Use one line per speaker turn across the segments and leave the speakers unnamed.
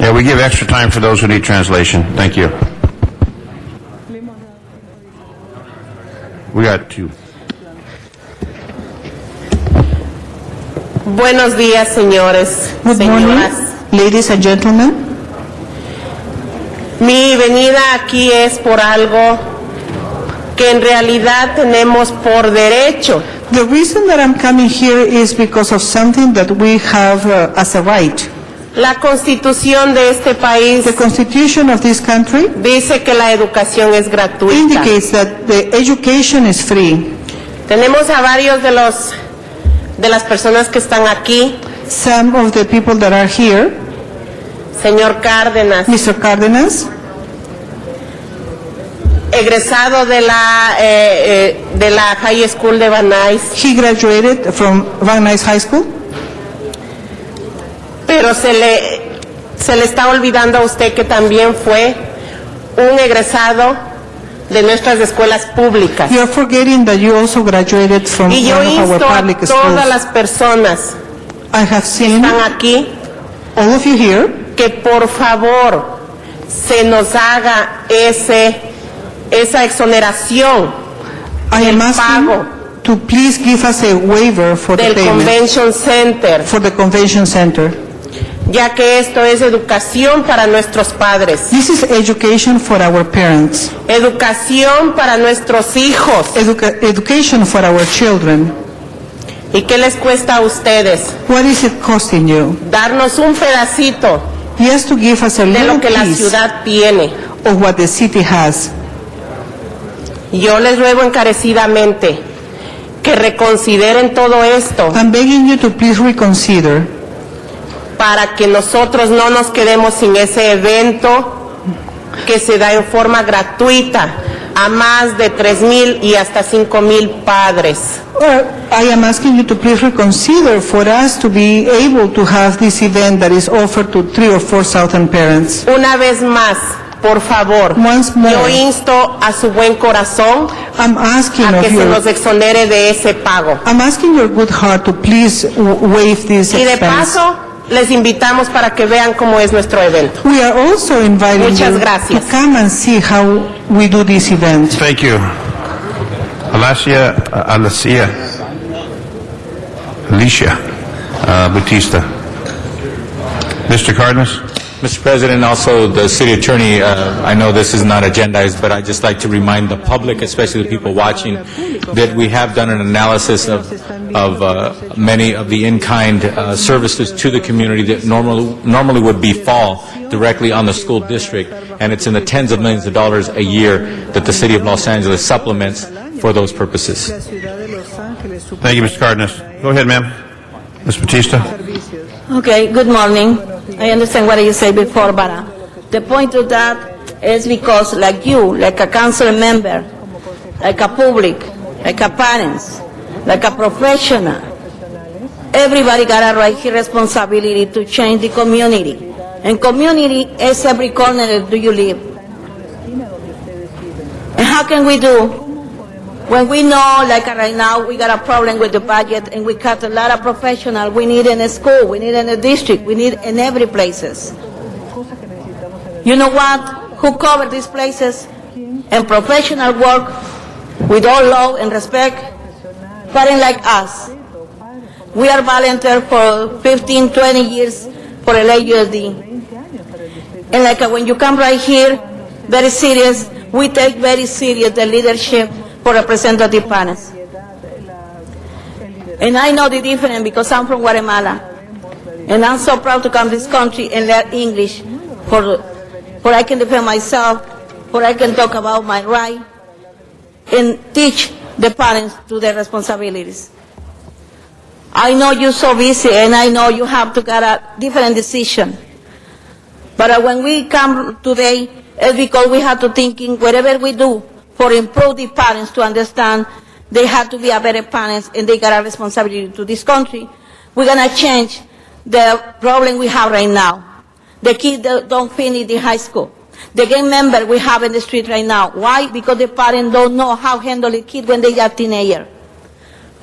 Yeah, we give extra time for those who need translation. Thank you. We got two.
Buenos días, señores,
Good
señoras.
morning, ladies and gentlemen.
Mi venida aquí es por algo que en realidad tenemos por derecho.
The reason that I'm coming here is because of something that we have uh, as a right.
La constitución de este país
The Constitution of this country
dice que la educación es gratuita.
indicates that the education is free.
Tenemos a varios de los de las personas que están aquí,
Some of the people that are here,
señor Cárdenas,
Mr. Cardenas,
egresado de la eh, eh, de la High School de Banais,
he graduated from Van Nuys High School,
pero se le se le está olvidando a usted que también fue un egresado de nuestras escuelas públicas.
You're forgetting that you also graduated from
Y yo
one of
insto
our
a
public
todas
schools.
las personas
I have seen
que están aquí
all of you here
que por favor se nos haga ese esa exoneración
I am
pago.
asking to please give us a waiver for the
del
payment
Convention Center,
for the convention center.
ya que esto es educación para nuestros padres,
This is education for our parents,
educación para nuestros hijos.
educa- education for our children.
¿Y qué les cuesta a ustedes?
What is it costing you?
Darnos un pedacito
Yes, to give us a
de
little
lo que la
piece
ciudad tiene.
of what the city has.
Yo les ruego encarecidamente que reconsideren todo esto
I'm begging you to please reconsider Ah.
para que nosotros no nos quedemos sin ese evento que se da en forma gratuita a más de 3.000 y hasta 5.000 padres.
Or I am asking you to please reconsider for us to be able to have this event that is offered to three or four thousand parents.
Una vez más, por favor,
Once more.
yo insto a su buen corazón
I'm asking
a
of
que se nos
you,
exonere de ese pago.
I'm asking your good heart to please w- waive this
Y de
expense.
paso, les invitamos para que vean cómo es nuestro evento.
We are also inviting
Muchas
you to
gracias.
come and see how we do this event.
Thank you. Alicia, uh, Alicia, Alicia uh, Batista. Mr. Cardenas?
Mr. President, also the city attorney, uh, I know this is not agendized, but I'd just like to remind the public, especially the people watching, that we have done an analysis of of uh, many of the in-kind uh, services to the community that normally normally would befall directly on the school district, and it's in the tens of millions of dollars a year that the city of Los Angeles supplements for those purposes.
Thank you, Mr. Cardenas. Go ahead, ma'am. Ms. Batista?
Okay, good morning. I understand what you said before, but uh, the point of that is because like you, like a council member, like a public, like a parents, like a professional, everybody got a right responsibility to change the community. And community is every corner that do you live. And how can we do when we know, like right now, we got a problem with the budget and we cut a lot of professional, we need in a school, we need in a district, we need in every places. You know what? Who cover these places and professional work with all love and respect? Parents like us. We are volunteer for 15, 20 years for LAUSD. And like uh, when you come right here, very serious, we take very serious the leadership for representative panels. And I know the difference because I'm from Guatemala. And I'm so proud to come to this country and learn English for, for I can defend myself, for I can talk about my right and teach the parents to their responsibilities. I know you're so busy and I know you have to get a different decision. But uh, when we come today, it's because we have to thinking whatever we do for improve the parents to understand they have to be a better parents and they got a responsibility to this country. We're gonna change the problem we have right now. The kids that don't finish the high school. The gang member we have in the street right now. Why? Because the parents don't know how handle the kid when they are teenager.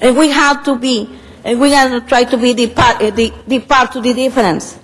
And we have to be, and we have to try to be the part, eh, the, the part to the difference.